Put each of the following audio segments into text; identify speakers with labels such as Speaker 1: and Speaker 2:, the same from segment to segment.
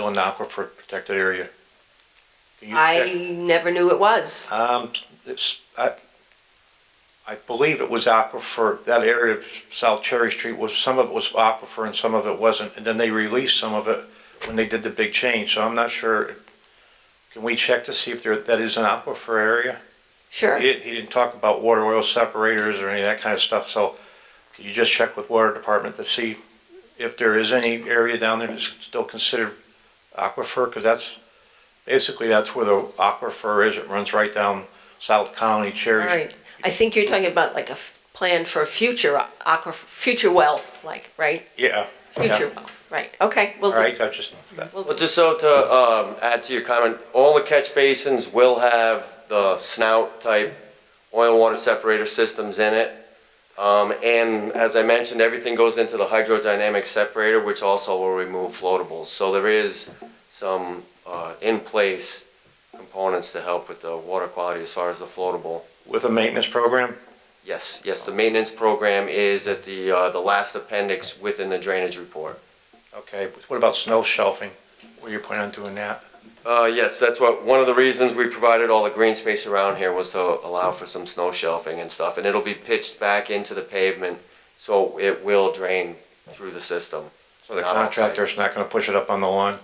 Speaker 1: still in the aquifer protected area? Can you check?
Speaker 2: I never knew it was.
Speaker 1: Um, it's, I, I believe it was aquifer, that area of South Cherry Street was, some of it was aquifer and some of it wasn't. And then they released some of it when they did the big change, so I'm not sure. Can we check to see if there, that is an aquifer area?
Speaker 2: Sure.
Speaker 1: He didn't, he didn't talk about water oil separators or any of that kind of stuff, so could you just check with water department to see if there is any area down there that's still considered aquifer, because that's, basically that's where the aquifer is, it runs right down South Colony,
Speaker 2: All
Speaker 1: Cherry.
Speaker 2: right. I think you're talking about like a f- plan for a future uh, aqua, future well, like, right?
Speaker 1: Yeah. yeah.
Speaker 2: Future well, right. Okay, we'll
Speaker 1: All
Speaker 2: do.
Speaker 1: right, I just,
Speaker 2: we'll
Speaker 3: Well,
Speaker 2: do.
Speaker 3: just so to um, add to your comment, all the catch basins will have the snout type oil water separator systems in it. Um, And as I mentioned, everything goes into the hydrodynamic separator, which also will remove floatables. So there is some uh, in-place components to help with the water quality as far as the floatable.
Speaker 1: with a maintenance program,
Speaker 3: Yes, yes, the maintenance program is at the, uh, the last appendix within the drainage report.
Speaker 1: okay, what about snow shelving? Were you planning on doing that?
Speaker 3: Uh, yes, that's what, one of the reasons we provided all the green space around here was to allow for some snow shelving and stuff, and it'll be pitched back into the pavement, so it will drain through the system.
Speaker 1: So the
Speaker 3: Not outside.
Speaker 1: contractor's not gonna push it up on the lawn?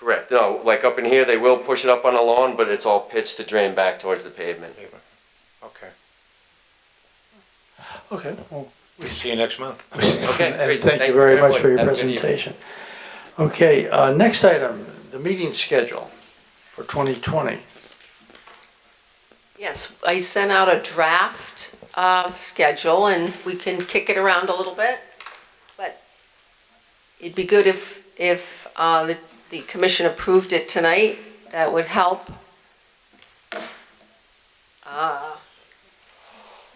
Speaker 3: Correct, no, like up in here, they will push it up on the lawn, but it's all pitched to drain back towards the pavement.
Speaker 1: Okay,
Speaker 4: Okay, well,
Speaker 1: see you next month.
Speaker 3: Okay,
Speaker 4: and
Speaker 3: great.
Speaker 4: thank you very much for your presentation. Okay, uh, next item, the meeting schedule for 2020.
Speaker 2: Yes, I sent out a draft uh, schedule and we can kick it around a little bit. But it'd be good if, if uh, the the commission approved it tonight. That would help. Uh,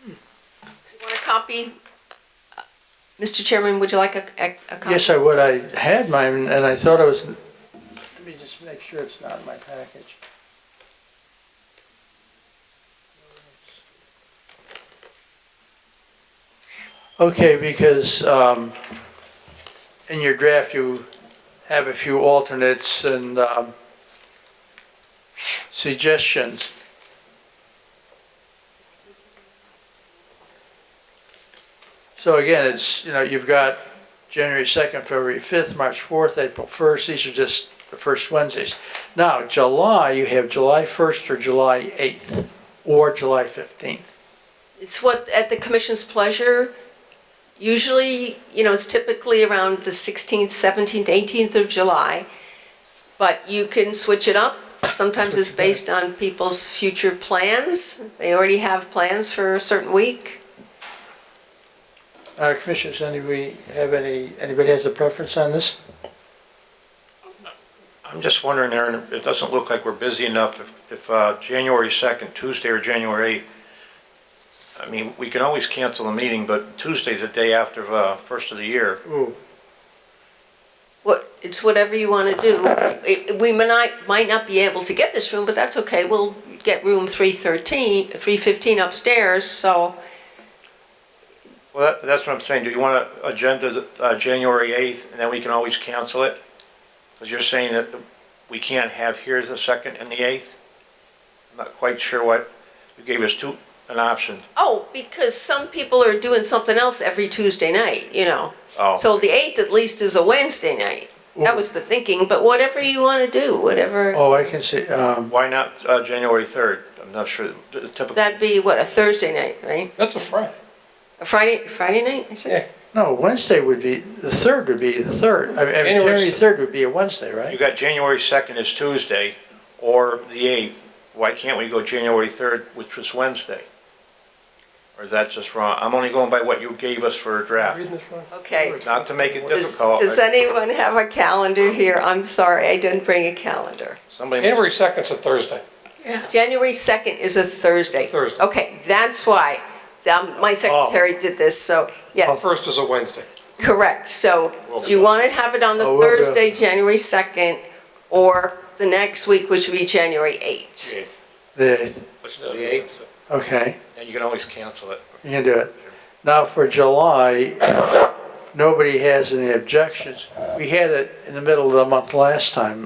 Speaker 2: hmm. You want a copy? Mr. Chairman, would you like a, a- a copy?
Speaker 4: Yes, I would, I had mine, and I thought I was, let me just make sure it's not in my package. Okay, because um, in your draft, you have a few alternates and um, suggestions. So again, it's, you know, you've got January 2nd, February 5th, March 4th, April 1st. These are just the first Wednesdays. Now, July, you have July 1st or July 8th or July 15th.
Speaker 2: It's what, at the commission's pleasure, usually, you know, it's typically around the 16th, 17th, 18th of July, but you can switch it up. Sometimes it's based on people's future plans. They already have plans for a certain week.
Speaker 4: Uh, Commissioners, anybody have any, anybody has a preference on this?
Speaker 1: I'm just wondering, Aaron, it doesn't look like we're busy enough if, if, uh, January second, Tuesday or January eighth. I mean, we can always cancel a meeting, but Tuesday's the day after, uh, first of the year.
Speaker 4: Ooh.
Speaker 2: What, it's whatever you want to do. It- We might, not- might not be able to get this room, but that's okay. We'll get room 313, 315 upstairs, so
Speaker 1: Well, that, that's what I'm saying. Do you want to agenda, the, uh, January eighth and then we can always cancel it? Cause you're saying that we can't have here the second and the eighth? I'm not quite sure what, you gave us two, an option.
Speaker 2: Oh, because some people are doing something else every Tuesday night, you know.
Speaker 1: Oh.
Speaker 2: So the eighth at least is a Wednesday night. That was the thinking, but whatever you want to do, whatever,
Speaker 4: Oh, I can see, um,
Speaker 1: Why not, uh, January third? I'm not sure, the typical.
Speaker 2: that'd be what, a Thursday night, right?
Speaker 5: That's a Friday.
Speaker 2: A Friday, Friday night, I said?
Speaker 4: no, Wednesday would be, the 3rd would be the 3rd. I mean,
Speaker 5: Anyway,
Speaker 4: January 3rd would be a Wednesday,
Speaker 1: You
Speaker 4: right?
Speaker 1: got January 2nd is Tuesday, or the 8th, why can't we go January 3rd, which was Wednesday? Or is that just wrong? I'm only going by what you gave us for a draft,
Speaker 5: Reading this wrong.
Speaker 2: Okay.
Speaker 1: not to make it
Speaker 2: Does,
Speaker 1: difficult.
Speaker 2: does anyone have a calendar here? I'm sorry, I didn't bring a calendar.
Speaker 1: Somebody,
Speaker 5: January second's a Thursday.
Speaker 2: January second is a Thursday.
Speaker 5: Thursday.
Speaker 2: Okay, that's why, um, my secretary did this, so, yes.
Speaker 5: First is a Wednesday.
Speaker 2: Correct, so do you want to have it on the
Speaker 4: Oh, we'll do it.
Speaker 2: Thursday, January 2nd, or the next week, which would be January 8th?
Speaker 4: The,
Speaker 1: the 8th,
Speaker 4: okay.
Speaker 1: and you can always cancel it.
Speaker 4: You can do it. Now for July, nobody has any objections. We had it in the middle of the month last time,